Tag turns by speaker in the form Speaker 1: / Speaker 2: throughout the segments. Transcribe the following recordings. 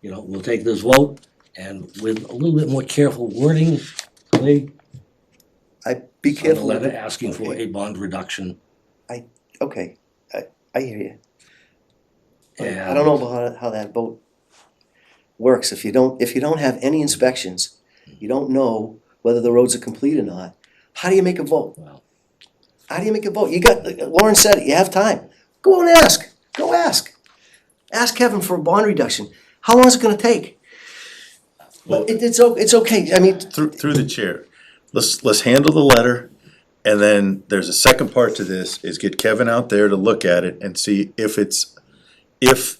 Speaker 1: you know, we'll take this vote and with a little bit more careful wording, Clay,
Speaker 2: I, be
Speaker 1: on the
Speaker 2: careful.
Speaker 1: letter asking for
Speaker 2: Okay.
Speaker 1: a bond reduction.
Speaker 2: Okay, I, I hear you. I I
Speaker 1: and-
Speaker 2: don't know how, how that boat works. If you don't, if you don't have any inspections, you don't know whether the roads are complete or not, how do you make a vote?
Speaker 1: Well,
Speaker 2: How do you make a vote? You got, Lauren said it, you have time. Go and ask, go ask. Ask Kevin for a bond reduction. How long is it gonna take?
Speaker 3: Well-
Speaker 2: But it, it's, o- it's okay, I mean,
Speaker 3: Through, through the chair, let's, let's handle the letter, and then there's a second part to this, is get Kevin out there to look at it and see if it's, if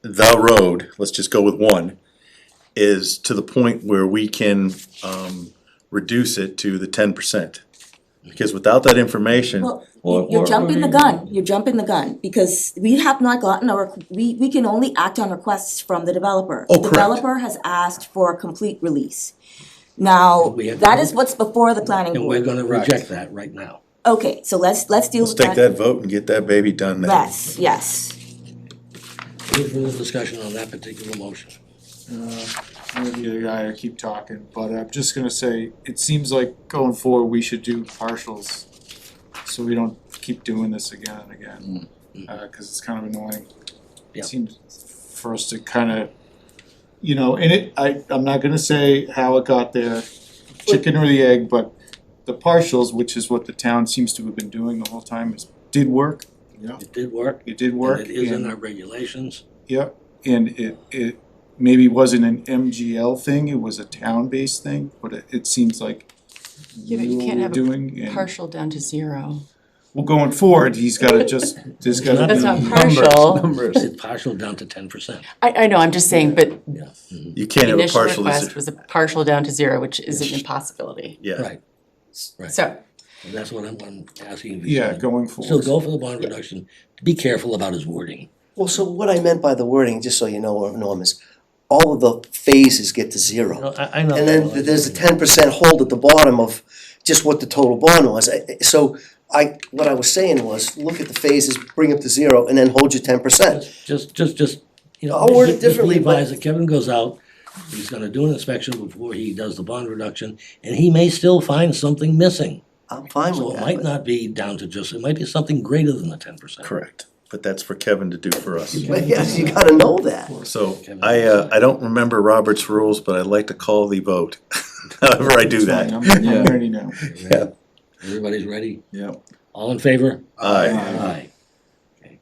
Speaker 3: the road, let's just go with one, is to the point where we can, um, reduce it to the ten percent. Because without that information,
Speaker 4: Well,
Speaker 1: Or-
Speaker 4: you- you're
Speaker 1: or-
Speaker 4: jumping the
Speaker 1: or-
Speaker 4: gun, you're jumping the gun, because we have not gotten a, requ- we, we can only act on requests from the developer.
Speaker 3: Oh, correct.
Speaker 4: The Developer has asked for a complete release. Now,
Speaker 1: we have
Speaker 4: that
Speaker 1: to-
Speaker 4: is what's before the planning
Speaker 1: And we're
Speaker 4: board.
Speaker 1: gonna reject that right now.
Speaker 4: Okay, so let's, let's deal
Speaker 3: let's
Speaker 4: with
Speaker 3: take that vote and get that baby done then.
Speaker 4: Yes, yes.
Speaker 1: Any further discussion on that particular motion?
Speaker 5: Uh, I'm gonna be the guy to keep talking, but I'm just gonna say, it seems like going forward, we should do partials. So we don't keep doing this again and again, uh, cause it's kind of annoying.
Speaker 1: Mm, Yeah.
Speaker 5: It seems for us to kinda, you know, and it, I, I'm not gonna say how it got there, chicken or the egg, but the partials, which is what the town seems to have been doing the whole time, is, did work. Yeah.
Speaker 1: It did work,
Speaker 5: It did work.
Speaker 1: and it is in
Speaker 5: and-
Speaker 1: our regulations.
Speaker 5: Yep, and it, it maybe wasn't an MGL thing, it was a town-based thing, but it, it seems like
Speaker 6: Yeah, but you
Speaker 5: you
Speaker 6: can't
Speaker 5: were
Speaker 6: have a
Speaker 5: doing, and,
Speaker 6: partial down to zero.
Speaker 5: well, going forward, he's gotta just, there's gotta be.
Speaker 6: That's not partial.
Speaker 1: It's partial down to ten percent.
Speaker 6: I, I know, I'm just saying, but
Speaker 3: You can't
Speaker 6: the
Speaker 3: have a
Speaker 6: initial
Speaker 3: partial,
Speaker 6: request was a partial down to zero, which is an impossibility.
Speaker 3: yeah,
Speaker 1: Right, Right.
Speaker 6: So,
Speaker 1: and that's what I'm, what I'm asking you.
Speaker 5: Yeah, going
Speaker 1: So
Speaker 5: forward,
Speaker 1: go for the bond reduction, be careful about his wording.
Speaker 2: well, so what I meant by the wording, just so you know, Norm, is all of the phases get to zero.
Speaker 1: I, I know.
Speaker 2: And then th- there's a ten percent hold at the bottom of just what the total bond was. I- I- So I, what I was saying was, look at the phases, bring them to zero, and then hold your ten percent.
Speaker 1: Just, just, just, you know.
Speaker 2: I'll word it
Speaker 1: just
Speaker 2: differently, but-
Speaker 1: Revise it, Kevin goes out, he's gonna do an inspection before he does the bond reduction, and he may still find something missing.
Speaker 2: I'm fine
Speaker 1: So
Speaker 2: with
Speaker 1: it might
Speaker 2: that.
Speaker 1: not be down to just, it might be something greater than the ten percent.
Speaker 3: correct, but that's for Kevin to do for us.
Speaker 2: But yes, you gotta know that.
Speaker 3: So I, uh, I don't remember Robert's rules, but I'd like to call the vote, however I do
Speaker 5: fine,
Speaker 3: that.
Speaker 5: I'm, I'm ready now.
Speaker 3: Yeah.
Speaker 1: Everybody's ready?
Speaker 3: Yeah.
Speaker 1: All in favor?
Speaker 3: Aye.
Speaker 1: Aye. Okay.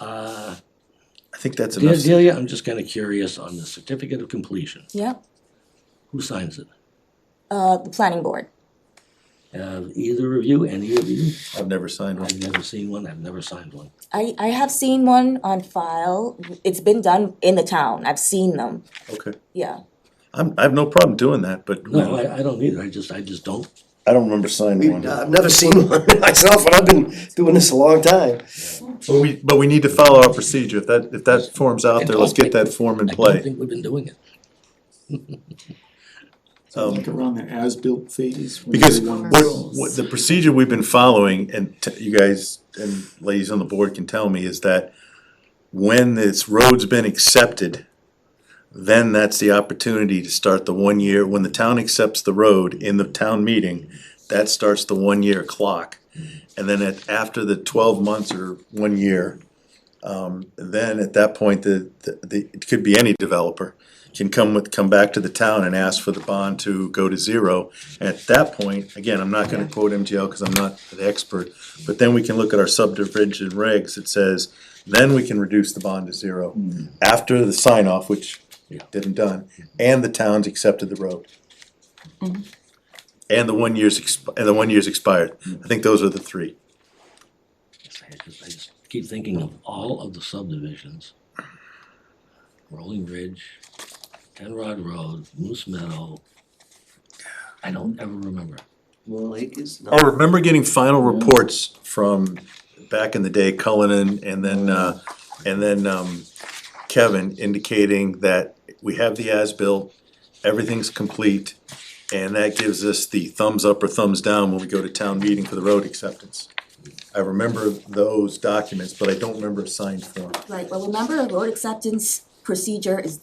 Speaker 1: Uh,
Speaker 3: I think that's
Speaker 1: Dear
Speaker 3: enough.
Speaker 1: Delia, I'm just kinda curious on the certificate of completion,
Speaker 4: Yep,
Speaker 1: who signs it?
Speaker 4: uh, the planning board.
Speaker 1: Uh, either of you, any of you?
Speaker 3: I've never signed one.
Speaker 1: I've never seen one, I've never signed one.
Speaker 4: I, I have seen one on file, it's been done in the town, I've seen them,
Speaker 3: Okay.
Speaker 4: yeah.
Speaker 3: I'm, I have no problem doing that, but
Speaker 1: No, I, I don't either, I just, I just don't,
Speaker 3: I don't remember signing one.
Speaker 2: I've never seen one myself, and I've been doing this a long time.
Speaker 3: But we, but we need to follow our procedure. If that, if that form's out there, let's get that form in
Speaker 1: I don't
Speaker 3: play.
Speaker 1: think we've been doing it.
Speaker 5: So like around the as-built phase.
Speaker 3: Um,
Speaker 5: when
Speaker 3: Because
Speaker 5: everyone
Speaker 3: what,
Speaker 5: was-
Speaker 3: what the procedure we've been following, and t- you guys and ladies on the board can tell me, is that when this road's been accepted, then that's the opportunity to start the one year, when the town accepts the road in the town meeting, that starts the one year clock. And then at, after the twelve months or one year, um, then at that point, the, the- the, it could be any developer can come with, come back to the town and ask for the bond to go to zero. At that point, again, I'm not gonna quote MGL because I'm not the expert, but then we can look at our subdivision regs, it says, then we can reduce the bond to zero after the sign off, which
Speaker 1: Yeah.
Speaker 3: didn't done, and the town's accepted the road. And the one year's, exp- and the one year's expired, I think those are the three.
Speaker 1: I just- I just keep thinking of all of the subdivisions. Rolling Ridge, Ten Rod Road, Moose Meadow. I don't ever remember.
Speaker 2: Well, it is
Speaker 3: I
Speaker 2: not.
Speaker 3: Oh, remember getting final reports from back in the day, Cullinan and then, uh, and then, um, Kevin indicating that we have the as-built, everything's complete. And that gives us the thumbs up or thumbs down when we go to town meeting for the road acceptance. I remember those documents, but I don't remember a signed form.
Speaker 4: Right, well, remember, road acceptance procedure is